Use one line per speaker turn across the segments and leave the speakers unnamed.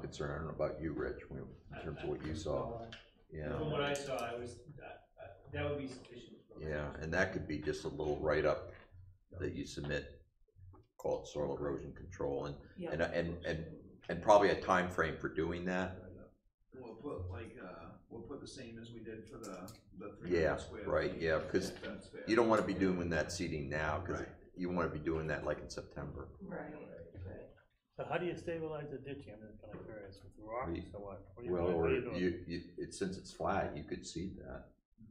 concern, I don't know about you, Rich, when- in terms of what you saw, yeah.
From what I saw, I was, that, that would be sufficient. for me.
Yeah, and that could be just a little write-up that you submit, called soil erosion control, and,
Yeah.
and, and, and, and probably a time frame for doing that,
We'll put like, uh, we'll put the same as we did for the, the three
Yeah,
hundred square.
right, yeah, because
That's fair.
you don't wanna be doing that seeding now, cause you wanna be doing that like in September.
Right,
So how do you stabilize the ditching? I'm just kinda curious, with
We-
rocks or what? What do you-
Well,
what
or
do you do?
you, you, it, since it's flat, you could seed that,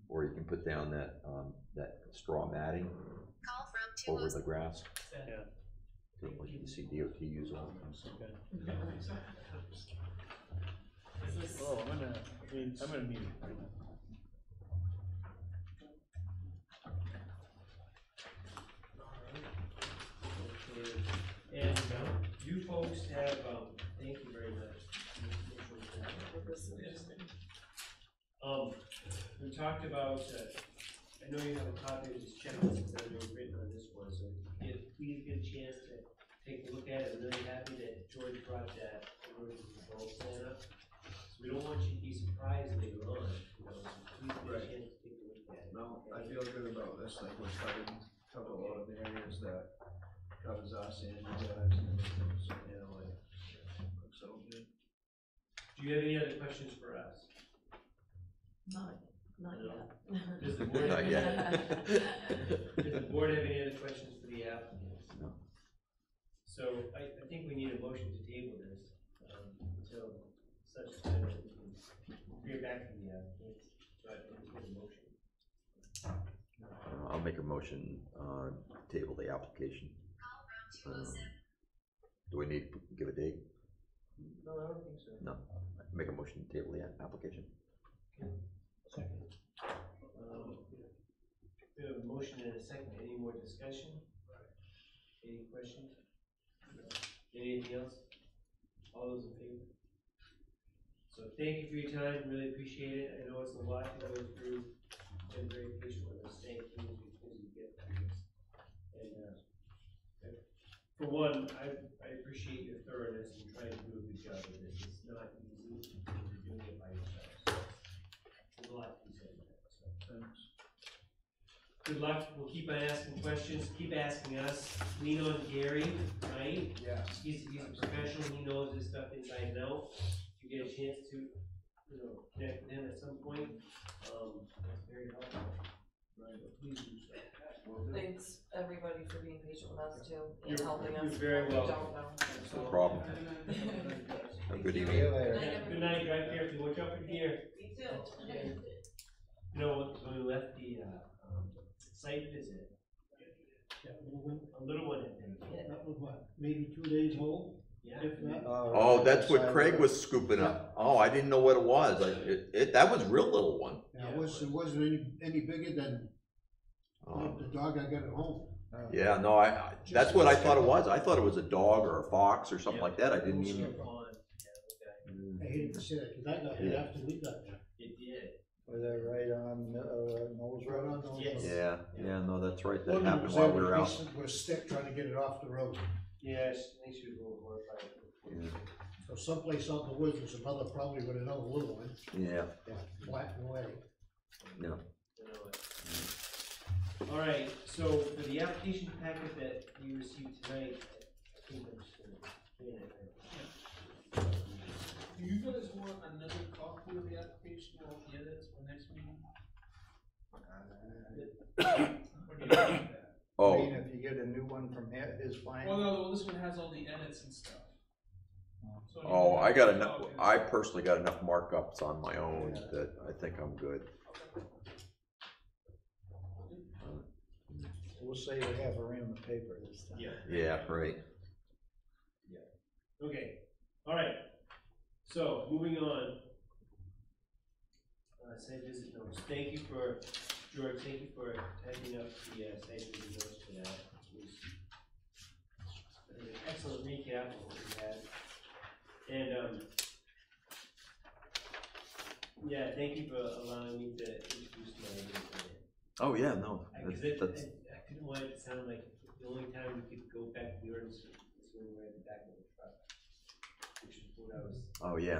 or you can put down that, um, that straw matting
Call from two
over
oh
the grass.
Yeah.
What you see DOT use all the time, so.
Oh, I'm gonna, I mean, I'm gonna need it right now.
Okay. And um, you folks have, um, thank you very much. Um, we talked about, uh, I know you have a copy of this checklist that I've written on this one, so if we get a chance to take a look at it, I'm really happy that George brought that erosion control plan up. So we don't want you to be surprised later on, you know, so please get a
Right.
chance to take a look at it.
No, I feel good about this, like we're covering, cover a lot of the areas that covers us and you guys and everything, so, you know, like, looks so good.
Do you have any other questions for us?
not, not yet.
Does the board
Not
have any
yet.
Does the board have any other questions for the applicants?
No.
So I, I think we need a motion to table this, um, until such time that we can hear back from the applicants, but it's a motion.
Uh, I'll make a motion, uh, table the application. Um,
two oh seven.
Do we need to give a date?
No, I don't think so.
No. Make a motion to table the a- application.
Second. Um, We have a motion and a second, any more discussion? Any questions? Anything else? All those in favor? So thank you for your time, really appreciate it, I know it's a lot to go through, been very patient with us, thank you, because you get through this. And, uh, for one, I, I appreciate your thoroughness in trying to do a good job of this, it's not easy, you're doing it by yourself, so there's a lot to be said about it, so.
Thanks.
Good luck, we'll keep on asking questions, keep asking us, lean on Gary, right?
Yeah.
He's, he's a professional, he knows this stuff inside and out, if you get a chance to, you know, connect with him at some point, um, that's very helpful. Right, but please do so.
Will do.
Thanks, everybody, for being patient with us too, and
You're-
helping us.
you're very
We
welcome.
don't know.
No problem. Have a good evening.
Good night, drive carefully, watch out for deer.
You
Yeah. You know, when we left the, uh, um, site visit, that little one- a little one had been,
That was what, maybe two days old,
yeah.
if not?
Oh, that's what Craig was scooping up. Oh, I didn't know what it was. I, it, it, that was real little one.
Now, it was, it wasn't any, any bigger than
Um,
the dog I got at home. Uh,
Yeah, no, I, I, that's what I thought it was. I thought it was a dog or a fox or something like that. I didn't
It
even.
was a fawn. Yeah,
I hated to say that, cause I got it
Yeah.
after we got there.
okay. It did.
Was that right on, uh, nose
Right
road?
on the-
Yes.
Yeah, yeah, no, that's right. That
One of them
happened
was
while
there
we were
with a
out.
piece of- with a stick trying to get it off the road.
Yes, I think she was a little horrified.
So someplace out in the woods was another, probably with another little one,
Yeah,
black and white.
yeah.
You know it. All right, so for the application packet that you received tonight, I think I'm just gonna. hand it over.
Do you guys want another copy of the application or the edits for next meeting? Or do you want that?
I mean,
Oh,
if you get a new one from him, is fine.
Well, no, this one has all the edits and stuff. So you
oh,
can
I got
have
enough,
copies.
I personally got enough markups on my own that I think I'm good.
We'll say we have her in the paper this time.
Yeah.
Yeah, right.
Okay, all right, so moving on. Uh, site visit notes, thank you for, George, thank you for typing up the uh, site visit notes for that. It was- it was an Excellent recap of what we had, and, um, yeah, thank you for allowing me to introduce my uh, idea today.
Oh, yeah, no,
Because
that's,
it,
that's,
I, I didn't want it to sound like the only time we could go back to the ordinance was when we were at the back of the truck. Which is when I was
Oh, yeah.